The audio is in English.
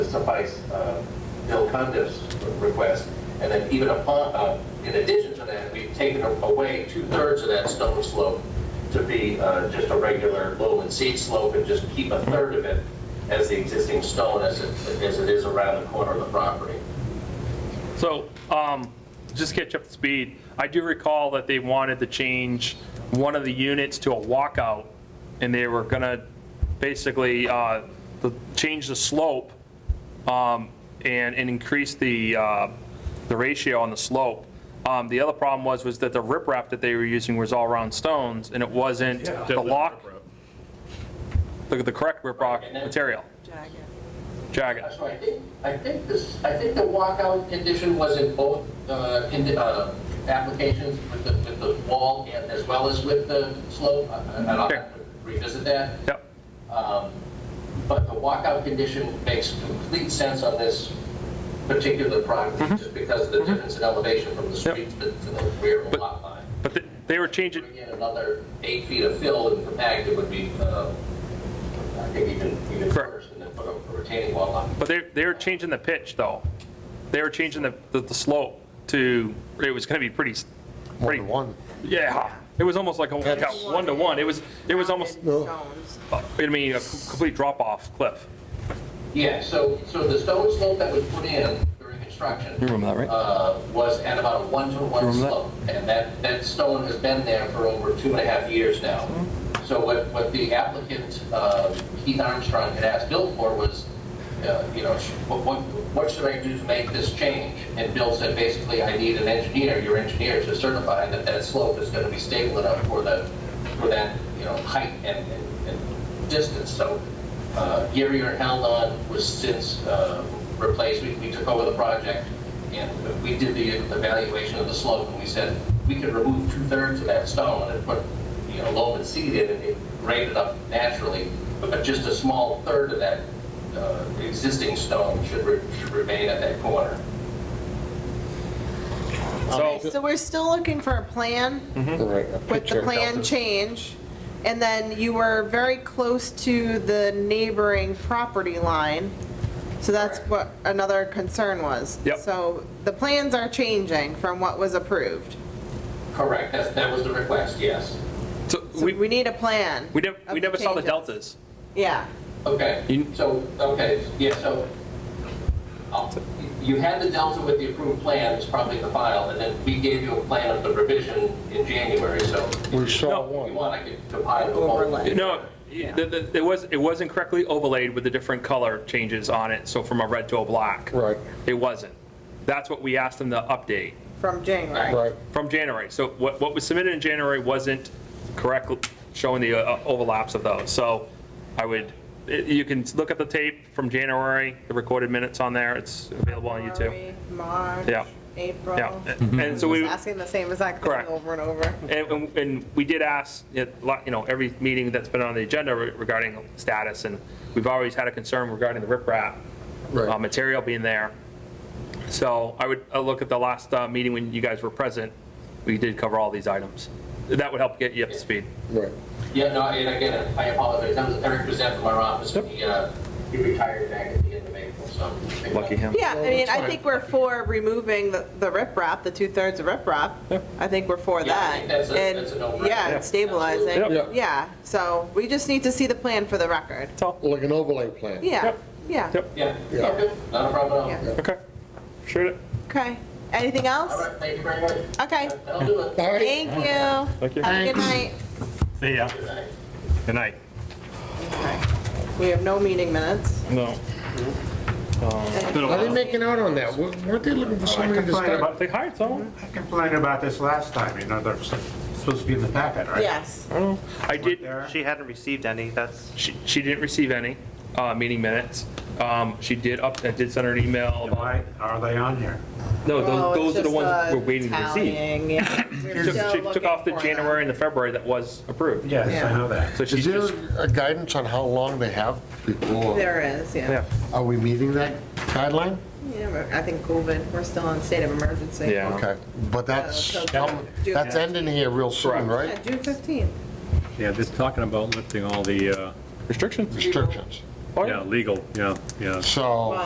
suffice uh, Bill Cundiff's request. And then even upon, uh, in addition to that, we've taken away two-thirds of that stone slope to be uh, just a regular lowland seed slope and just keep a third of it as the existing stone as it, as it is around the corner of the property. So, um, just to catch up to speed, I do recall that they wanted to change one of the units to a walkout, and they were gonna basically, uh, the- change the slope, um, and, and increase the, uh, the ratio on the slope. Um, the other problem was, was that the riprap that they were using was all round stones, and it wasn't the lock, the, the correct Right, riprap and then- material, Jagged. jagged. So I think, I think this, I think the walkout condition was in both, uh, in, the, uh, applications with the, with the wall and as well as with the slope. I- I- I'll have to Sure. revisit that. Yep, Um, But the walkout condition makes complete sense on this particular property, Mm-hmm. just because of the difference in elevation from the street to the- to the rear of the lot line. but they- they were changing, Bring in another eight feet of fill and compact, it would be, uh, I think even, even Correct. worse, and then put a retaining wall on. But they, they were changing the pitch, though. They were changing the, the- the slope to, it was gonna be pretty, s- One pretty, to one. yeah. It was almost like a, yeah, one to one. It was, it was almost, No. Stones. I mean, a complete drop-off cliff. Yeah, so, so the stone slope that was put in during construction. You remember that, right? uh, Was at about a one-to-one remember that? slope. And that, that stone has been there for over two and a half years now. Mm-hmm. So what, what the applicant, uh, Keith Armstrong, had asked Bill for was, uh, you know, sh- what, what- what should I do to make this change? And Bill said, basically, I need an engineer, your engineer, to certify that that slope is going to be stable enough for the, for that, you know, height and, and- and distance. So uh, Gary or Haldon was since uh, replaced, we we took over the project, and we did the evaluation of the slope, and we said, we could remove two-thirds of that stone and put, you know, loam and seed in, and it graded up naturally, but just a small third of that uh, existing stone should re- should remain at that corner. So, So we're still looking for a plan Mm-hmm. with the plan change. And then you were very close to the neighboring property line. So that's what another concern was. Yep. So the plans are changing from what was approved. Correct, that's, that was the request, yes. so So we, we need a plan. we never, of we never saw the changes. deltas. Yeah. Okay, You- so, okay, yeah, so, I'll- you had the delta with the approved plan, it's probably in the file, and then we gave you a plan of the revision in January, so if We saw No. you one. want, I could compile the whole. No, it the- the- it was, it wasn't correctly overlaid with the different color changes on it, so from a red to a black. Right, It wasn't. That's what we asked them to update. From January. Right. right. From January. So what, what was submitted in January wasn't correctly showing the uh, overlaps of those. So I would, you can look at the tape from January, the recorded minutes on there. It's available on YouTube. February, March. Yeah. April. Yeah. And so we, Just asking the same exact thing Correct. over and over. and, and- and we did ask, it lot- you know, every meeting that's been on the agenda re- regarding status, and we've always had a concern regarding the riprap Right. uh, material being there. So I would, I look at the last uh, meeting when you guys were present, we did cover all these items. That would help get you up to speed. Right. Yeah, no, and again, I apologize, that was Eric Brissette from our office, he, uh, he retired back at the end of April, so. Lucky him. Yeah, I mean, I fine. think we're for removing the the riprap, the two-thirds of riprap. I think we're for Yeah, I that. think that's a- And, that's a no-brainer. Yeah, Yeah. and stabilizing. Yep. Yeah. Yeah, so we just need to see the plan for the record. That's all. Like an overlay plan. Yeah, Yep. yeah, Yep. Yeah, Yeah. okay, not a problem at all. Yeah. Okay. Shoot it. okay. Anything All else? right, thank you very much. Okay, That'll do it. All right. thank you. Thank you. Have a good night. See ya. Good night. Good night. Okay. We have no meeting minutes. No. How they making out on that? Wa- Weren't they looking for somebody to complained start? about, They hired someone. I complained about this last time, you know, that's supposed to be in the packet, right? Yes, I did, There. She hadn't received any, that's, she, she didn't receive any, uh, meeting minutes. Um, she did up, I did send her an email about, Why are they on here? no, Oh, those, those it's are the just ones the we're waiting to receive. tallying, yeah. We're She took- still She took off the looking for them. January and the February that was approved. Yes, Yeah. I know that. So she's Is just, there a guidance on how long they have before? There is, yeah. yeah, Are we meeting that guideline? Yeah, but I think COVID, we're still in state of emergency. Yeah. Okay, but that's, Uh, so- um, Yeah. that's ending here real soon, Yeah, right? June 15th. Yeah, just talking about lifting all the, uh, restrictions. Restrictions. Oh, yeah. yeah, legal, yeah, yeah. So.